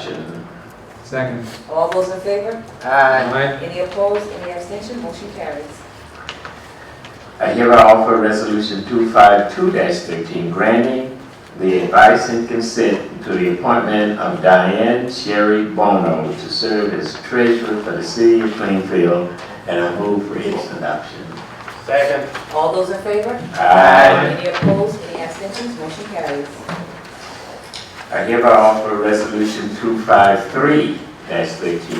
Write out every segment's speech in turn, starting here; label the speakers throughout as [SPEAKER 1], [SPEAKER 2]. [SPEAKER 1] discussion?
[SPEAKER 2] Second.
[SPEAKER 3] All those in favor?
[SPEAKER 1] Aye.
[SPEAKER 2] Aye.
[SPEAKER 3] Any opposed? Any abstention? Motion carries.
[SPEAKER 1] I hereby offer Resolution 252-13 granting the advice and consent to the appointment of Diane Sherry Bono to serve as treasurer for the city of Plainfield, and I move for its adoption.
[SPEAKER 4] Second.
[SPEAKER 3] All those in favor?
[SPEAKER 1] Aye.
[SPEAKER 3] Any opposed? Any abstentions? Motion carries.
[SPEAKER 1] I hereby offer Resolution 253-13,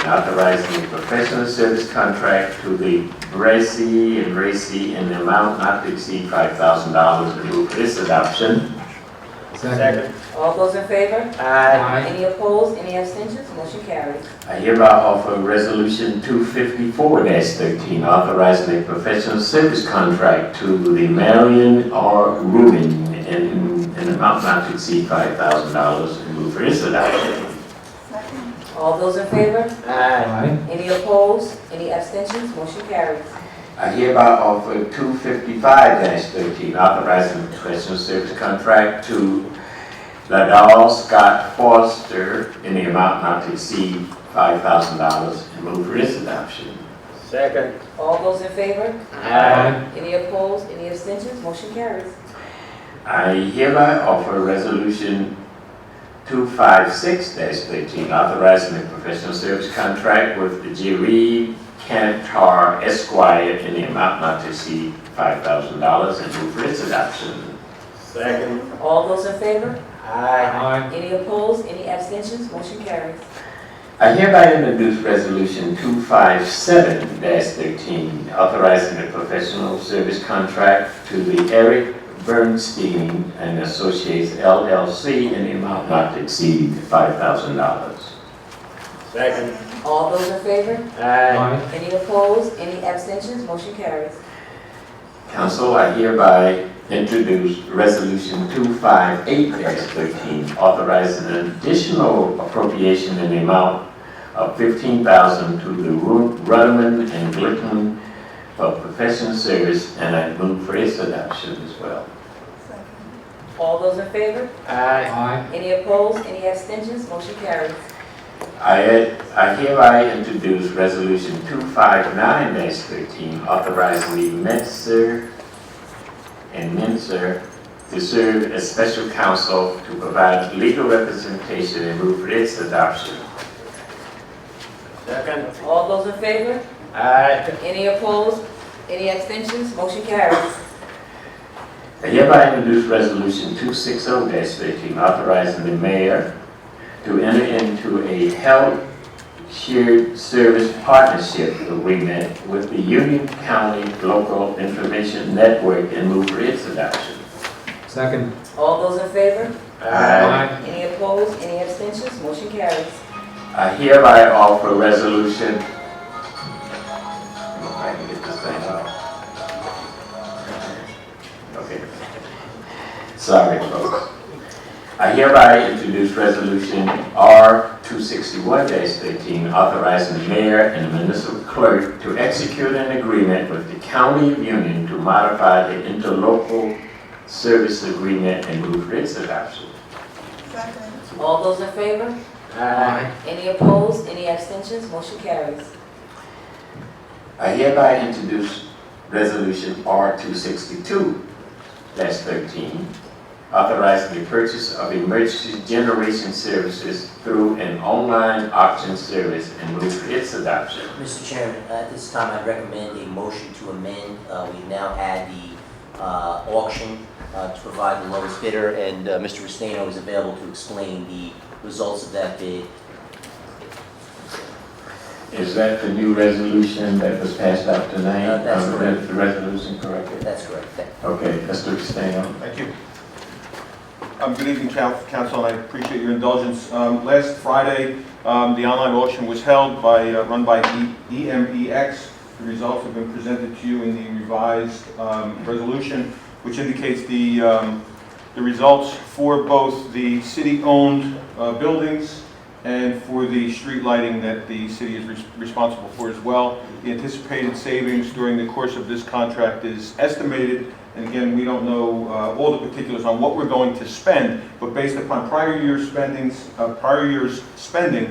[SPEAKER 1] authorizing a professional service contract to the Bracy and Racy in the amount not to exceed $5,000. I move for its adoption.
[SPEAKER 4] Second.
[SPEAKER 3] All those in favor?
[SPEAKER 1] Aye.
[SPEAKER 2] Aye.
[SPEAKER 3] Any opposed? Any abstentions? Motion carries.
[SPEAKER 1] I hereby offer Resolution 254-13, authorizing a professional service contract to the Marion R. Rubin in in an amount not to exceed $5,000. I move for its adoption.
[SPEAKER 3] All those in favor?
[SPEAKER 4] Aye.
[SPEAKER 2] Aye.
[SPEAKER 3] Any opposed? Any abstentions? Motion carries.
[SPEAKER 1] I hereby offer 255-13, authorizing professional service contract to Ladal Scott Foster in the amount not to exceed $5,000. I move for its adoption.
[SPEAKER 4] Second.
[SPEAKER 3] All those in favor?
[SPEAKER 2] Aye.
[SPEAKER 3] Any opposed? Any abstentions? Motion carries.
[SPEAKER 1] I hereby offer Resolution 256-13, authorizing a professional service contract with Jeree Cantar Esquire in the amount not to exceed $5,000 and move for its adoption.
[SPEAKER 4] Second.
[SPEAKER 3] All those in favor?
[SPEAKER 4] Aye.
[SPEAKER 2] Aye.
[SPEAKER 3] Any opposed? Any abstentions? Motion carries.
[SPEAKER 1] I hereby introduce Resolution 257-13, authorizing a professional service contract to the Eric Bernstein and Associates LLC in the amount not to exceed $5,000.
[SPEAKER 4] Second.
[SPEAKER 3] All those in favor?
[SPEAKER 4] Aye.
[SPEAKER 2] Aye.
[SPEAKER 3] Any opposed? Any abstentions? Motion carries.
[SPEAKER 1] Council, I hereby introduce Resolution 258-13, authorizing an additional appropriation in the amount of $15,000 to the Ru- Ruderman and Glickman for professional service, and I move for its adoption as well.
[SPEAKER 3] All those in favor?
[SPEAKER 4] Aye.
[SPEAKER 2] Aye.
[SPEAKER 3] Any opposed? Any abstentions? Motion carries.
[SPEAKER 1] I I hereby introduce Resolution 259-13, authorizing the Menser and Menser to serve as special counsel to provide legal representation and move for its adoption.
[SPEAKER 4] Second.
[SPEAKER 3] All those in favor?
[SPEAKER 4] Aye.
[SPEAKER 3] Any opposed? Any abstentions? Motion carries.
[SPEAKER 1] I hereby introduce Resolution 260-13, authorizing the mayor to enter into a health shared service partnership agreement with the Union County Local Information Network and move for its adoption.
[SPEAKER 2] Second.
[SPEAKER 3] All those in favor?
[SPEAKER 1] Aye.
[SPEAKER 3] Any opposed? Any abstentions? Motion carries.
[SPEAKER 1] I hereby offer Resolution, if I can get this thing out. Okay. Sorry, folks. I hereby introduce Resolution R 261-13, authorizing the mayor and the municipal clerk to execute an agreement with the County of Union to modify the interlocal service agreement and move for its adoption.
[SPEAKER 3] All those in favor?
[SPEAKER 4] Aye.
[SPEAKER 3] Any opposed? Any abstentions? Motion carries.
[SPEAKER 1] I hereby introduce Resolution R two sixty-two thirteen, authorizing the purchase of emergency generation services through an online auction service and move for its adoption.
[SPEAKER 5] Mr. Chairman, at this time, I recommend a motion to amend. Uh, We now had the uh, auction uh, to provide the lowest bidder, and uh, Mr. Restaino is available to explain the results of that bid.
[SPEAKER 1] Is that the new resolution that was passed out tonight?
[SPEAKER 5] Uh, that's
[SPEAKER 1] Um,
[SPEAKER 5] correct.
[SPEAKER 1] is The resolution corrected?
[SPEAKER 5] That's correct. Thank you.
[SPEAKER 1] Okay, Mr. Costello.
[SPEAKER 6] Thank you. Um, Good evening, coun- council, and I appreciate your indulgence. Um, Last Friday, um, the online auction was held by, uh, run by E- EMEX. The results have been presented to you in the revised um, resolution, which indicates the, um, the results for both the city-owned uh, buildings and for the street lighting that the city is res- responsible for as well. The anticipated savings during the course of this contract is estimated And again, we don't know uh, all the particulars on what we're going to spend, but based upon prior year's spendings, uh, prior year's spending,